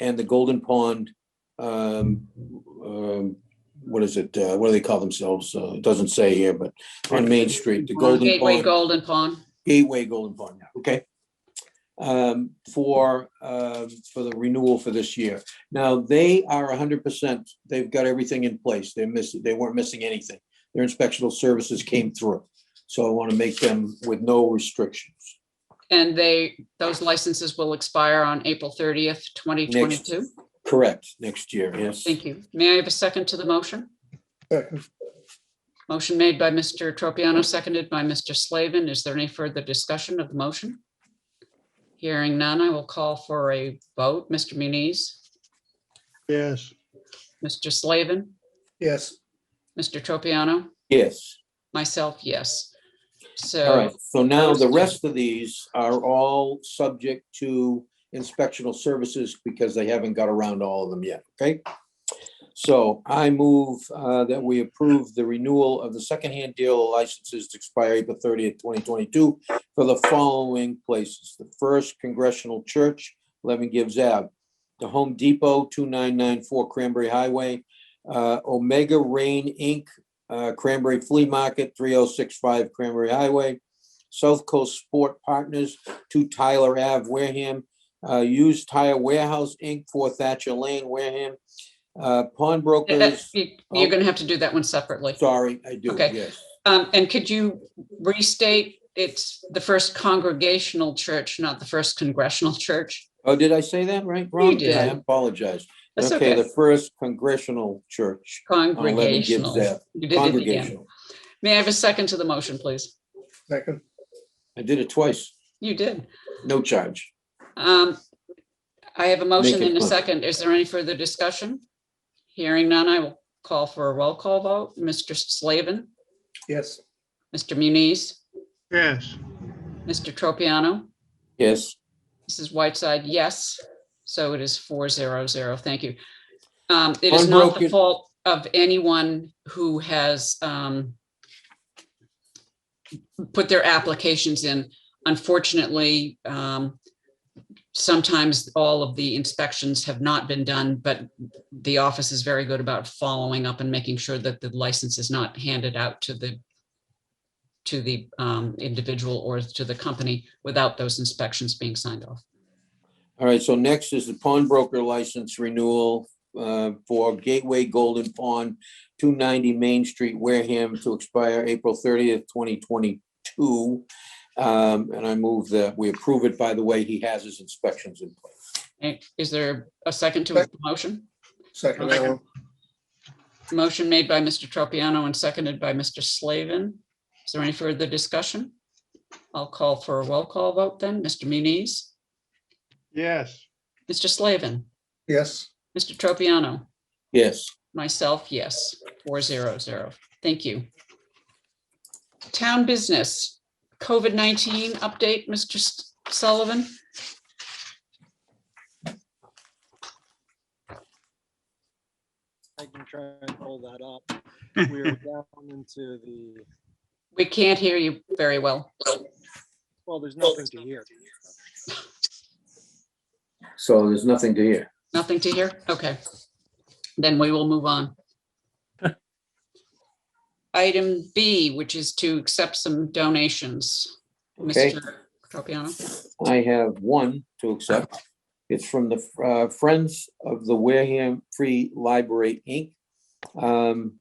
and the Golden Pond, um, um, what is it, uh, what do they call themselves? Uh, it doesn't say here, but on Main Street, the Golden Gateway Pond, Golden Pond. Gateway Golden Pond, okay? Um, for, uh, for the renewal for this year. Now, they are hundred percent, they've got everything in place. They're missing, they weren't missing anything. Their inspectional services came through. So I want to make them with no restrictions. And they, those licenses will expire on April 30th, 2022. Correct, next year, yes. Thank you. May I have a second to the motion? Motion made by Mr. Tropiano, seconded by Mr. Slavin. Is there any further discussion of the motion? Hearing none, I will call for a vote. Mr. Muniz, Yes. Mr. Slavin, Yes. Mr. Tropiano, Yes. myself, yes. All right, So, so now the Those two. rest of these are all subject to inspectional services because they haven't got around to all of them yet, okay? So I move uh, that we approve the renewal of the secondhand dealer licenses to expire April thirtieth, twenty twenty-two for the following places. The First Congressional Church, eleven Gibbs Ave. The Home Depot, two nine nine four Cranberry Highway. uh, Omega Rain Inc., uh, Cranberry Flea Market, 3065 Cranberry Highway, South Coast Sport Partners, 2 Tyler Ave, Wareham, uh, Used Tire Warehouse, Inc., 4 Thatcher Lane, Wareham, uh, Pawnbrokers, you- you're going to have to do that one separately. sorry, I do, Okay. yes. Um, and could you restate, it's the first congregational church, not the first congressional church? Oh, did I say that right? Wrong? I did. apologize. That's Okay, okay. the First Congressional Church. on 11 Gibbs Congregational. Ave. You did it again. Congregational. May I have a second to the motion, please? Second. I did it twice, You did. no charge. Um, I have a motion it and a quick. second. Is there any further discussion? Hearing none, I will call for a roll call vote. Mr. Slavin, Yes. Mr. Muniz, Yes. Mr. Tropiano, Yes, Mrs. Whiteside, yes. So it is four zero zero. Thank you. Um, it is not the Unbroken- fault of anyone who has um put their applications in. Unfortunately, um sometimes all of the inspections have not been done, but the office is very good about following up and making sure that the license is not handed out to the to the um individual or to the company without those inspections being signed off. All right, so next is the pawnbroker license renewal uh, for Gateway Golden Pawn, 290 Main Street, Wareham, to expire April 30th, 2022. Um, And I move that we approve it. By the way, he has his inspections in place. Eh, Is there a second to the motion? Second. that one. Motion made by Mr. Tropiano and seconded by Mr. Slavin. Is there any further discussion? I'll call for a roll call vote then. Mr. Muniz, Yes. Mr. Slavin, Yes. Mr. Tropiano, Yes, myself, yes, four zero zero. Thank you. Town business, COVID-19 update, Mr. S- Sullivan? I can try and pull that up. We're down into the, We can't hear you very well. well, there's nothing to hear. so there's nothing to hear. Nothing to hear? Okay. Then we will move on. Item B, which is to accept some donations. Okay. Mr. Tropiano, I have one to accept. It's from the uh, Friends of the Wareham Free Library, Inc. Um,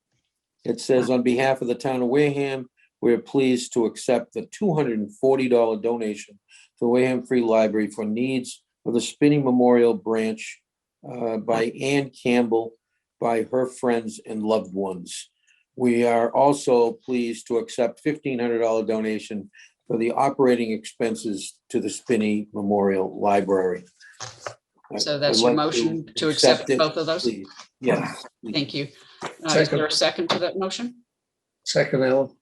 It says, on behalf of the town of Wareham, we are pleased to accept the $240 donation to Wareham Free Library for needs of the Spinning Memorial Branch uh, by Ann Campbell, by her friends and loved ones. We are also pleased to accept $1,500 donation for the operating expenses to the Spinney Memorial Library. I- So that's I'd your like motion to accept it, both of those? please. Yes, Thank you. Uh, Is there a second to that motion? Second, Ellen.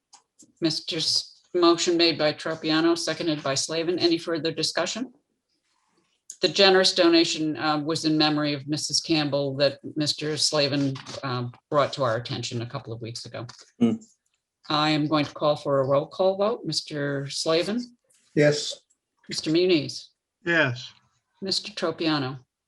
Mr. S- Motion made by Tropiano, seconded by Slavin. Any further discussion? The generous donation uh, was in memory of Mrs. Campbell that Mr. Slavin um, brought to our attention a couple of weeks ago. Hmm. I am going to call for a roll call vote. Mr. Slavin, Yes. Mr. Muniz, Yes. Mr. Tropiano,